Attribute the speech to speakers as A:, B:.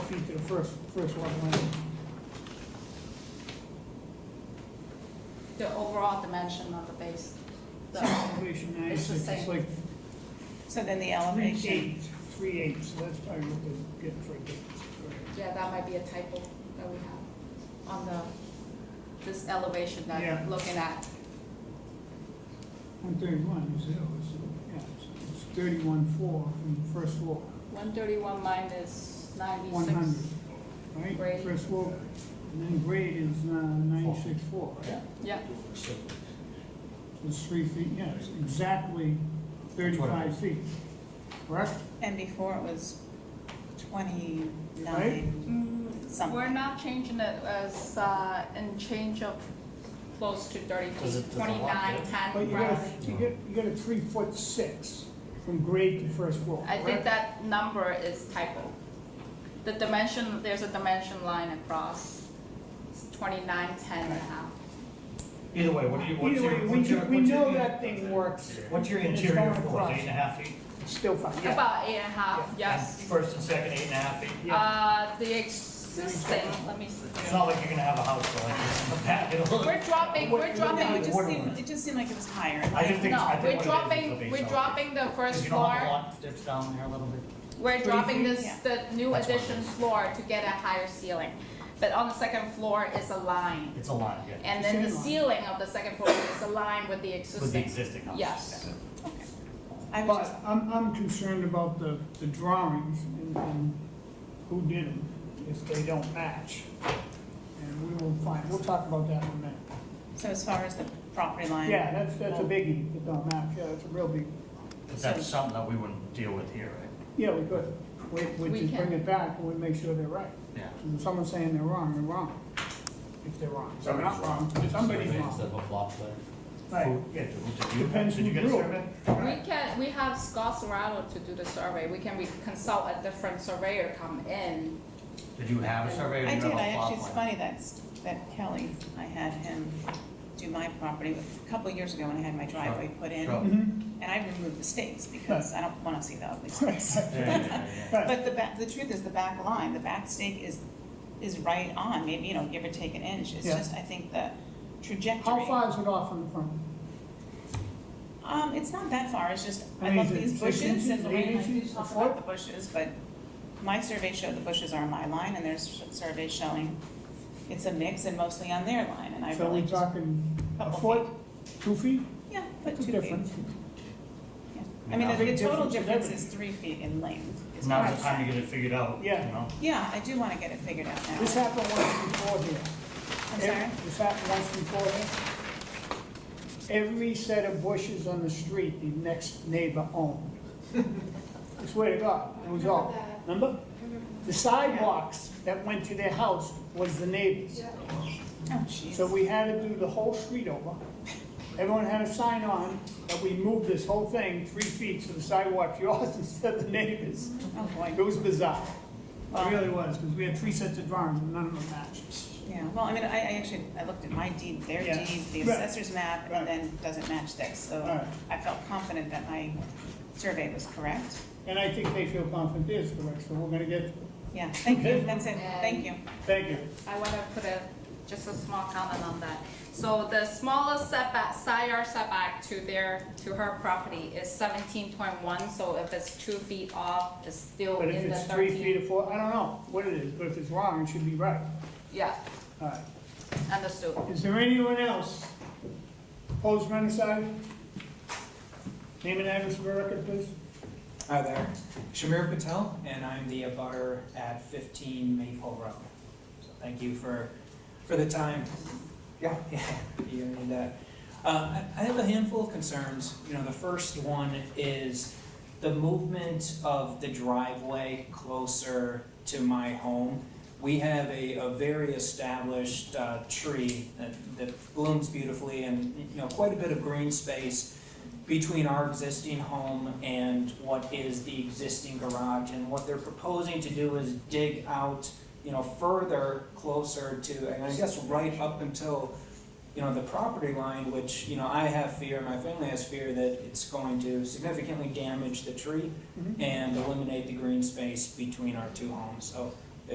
A: feet to the first, first lot line.
B: The overall dimension of the base,
A: So
B: the,
A: Elevation nine,
B: It's
A: it's
B: the
A: it's
B: same.
A: like
C: So then the
A: three
C: elevation,
A: eight, three eight, so that's probably what they're getting for a difference. Correct.
B: yeah, that might be a typo that we have on the, this elevation that
A: Yeah.
B: I'm looking at.
A: One thirty-one is, it? It's- yeah, it's- it's thirty-one four from the first floor,
B: One thirty-one minus
A: one
B: ninety-six.
A: hundred, right?
B: Grade.
A: First floor, and then grade is ninety-six four, right?
B: Yeah,
A: It's three feet, yeah, it's exactly thirty-five feet, correct?
C: and before it was
A: Right?
C: twenty-nine.
B: Mm,
C: Some.
B: we're not changing it as, uh, in change of close to thirty
D: Because
B: feet,
D: it doesn't lock
B: twenty-nine,
D: it.
A: But
B: ten,
A: you got,
B: roughly.
A: a- you get, you got a three foot six from grade to first floor,
B: I think
A: correct?
B: that number is typo. The dimension, there's a dimension line across, it's twenty-nine, ten and a half.
D: Either way, what do you, what's
A: Either
D: your?
A: way, we,
D: what's your-
A: do- we
D: what's your-
A: know that thing works,
D: What's your
A: It's
D: interior
A: going
D: floor,
A: across.
D: eight and a half feet?
A: still fine, yeah.
B: About eight and a half, yes.
D: First and second, eight and a half feet?
A: Yeah.
B: Uh, the existing, let me see.
D: It's not like you're gonna have a house like this in the back, it'll look.
B: We're dropping, we're
C: No, it
B: dropping,
D: is
C: just
D: Water
C: seemed,
D: line.
C: it just seemed like it was higher.
D: I just think, I
B: no, we're
D: think what it is is the
B: dropping,
D: base
B: we're
D: of it.
B: dropping the first
D: You know how the
B: floor.
D: lot dips down there a little bit?
B: We're dropping this,
C: Yeah.
B: the new
D: That's what it
B: addition
D: is.
B: floor to get a higher ceiling. But on the second floor is a line.
D: It's a lot, yeah.
B: And then the
A: Same line.
B: ceiling of the second floor is aligned with the
D: With the
B: existing.
D: existing house.
B: Yes.
C: Okay. I was
A: But
C: just,
A: I'm, I'm concerned about the, the drawings and, and who did them, if they don't match. And we will find, we'll talk about that in a minute.
C: so as far as the property line.
A: Yeah, that's, that's a biggie, if it don't match, yeah, that's a real big,
D: But that's something that we wouldn't deal with here, right?
A: yeah, we could, we, we
B: We
A: just bring
B: can.
A: it back and we make sure they're right.
D: Yeah.
A: And If someone's saying they're wrong, they're wrong, if they're wrong. They're not
E: Somebody's wrong.
A: Somebody's
E: Survey
A: wrong.
E: Instead of a flop plan.
A: Right.
D: Yeah, did you,
A: Depends
D: did
A: who
D: you get a
A: drew it.
D: survey?
B: We can, we have Scott Serrano to do the survey. We can, we consult a different surveyor come in.
D: Did you have a survey or
C: I
D: did you
C: did,
D: have
C: I
D: a
C: actually,
D: plot
C: it's
D: plan?
C: funny that's, that Kelly, I had him do my property a couple of years ago when I had my driveway put in.
D: Sure.
A: Mhm.
C: And I removed the stakes because I don't wanna see the ugly stakes.
D: Yeah, yeah, yeah, yeah.
C: But the back, the truth is, the back line, the back stake is, is right on, maybe, you know, give or take an inch, it's
A: Yeah.
C: just, I think the trajectory.
A: How far is it off from the front?
C: Um, it's not that far, it's just,
A: I
C: I
A: mean, is
C: love
A: it
C: these
A: six
C: bushes
A: inches,
C: and the
A: eight
C: way I do
A: inches, a
C: talk
A: foot?
C: about the bushes, but my survey showed the bushes are on my line and there's surveys showing it's a mix and mostly on their line, and I
A: So
C: really
A: we
C: just.
A: talking a
C: couple
A: foot, two feet?
C: Yeah, but
A: That's a
C: two feet,
A: difference.
C: yeah. I mean, the-
A: Big
C: the total
A: difference is everything.
C: difference is three feet in length. is what
D: Now's
C: I'm
D: the time to
C: saying.
D: get it figured out, you
A: Yeah.
D: know?
C: Yeah, I do wanna get it figured out now, I'm
A: This happened once before here.
C: sorry,
A: This happened once before here. Every set of bushes on the street, the next neighbor owned. I swear to God, it was all, remember? The sidewalks that went to their house was the neighbors.
C: oh jeez.
A: So we had to do the whole street over. Everyone had a sign on that we moved this whole thing three feet so the sidewalk's yours instead of the neighbors.
C: Oh, boy.
A: It was bizarre.
C: Wow.
A: It really was, because we had three sets of drawings and none of them matched.
C: Yeah, well, I mean, I, I actually, I looked at my deed, their
A: Yeah.
C: deed, the
A: Right.
C: assessor's map,
A: Right.
C: and then doesn't match this, so
A: Right.
C: I felt confident that my survey was correct.
A: And I think they feel confident it is correct, so we're gonna get,
C: Yeah, thank you,
A: Okay.
C: that's it, thank you.
A: thank you.
B: I want to put a, just a small comment on that. So the smallest setback, side yard setback to their, to her property is seventeen point one, so if it's two feet off, it's still
A: But if
B: Oh, in the
A: it's three feet
B: thirteen.
A: or four, I don't know what it is, but if it's wrong, it should be right.
B: Yeah,
A: All right.
B: understood.
A: Is there anyone else? Opposed, run aside? Name and address for the record, please.
F: Hi there, Shamir Patel, and I'm the abutter at 15 Maple Road. So thank you for, for the time. Yeah, yeah, you need that. Uh, I I have a handful of concerns. You know, the first one is the movement of the driveway closer to my home. We have a, a very established uh, tree that, that blooms beautifully and, you know, quite a bit of green space between our existing home and what is the existing garage. And what they're proposing to do is dig out, you know, further closer to, and I guess right up until, you know, the property line, which, you know, I have fear, my family has fear that it's going to significantly damage the tree
A: Mhm.
F: and eliminate the green space between our two homes. So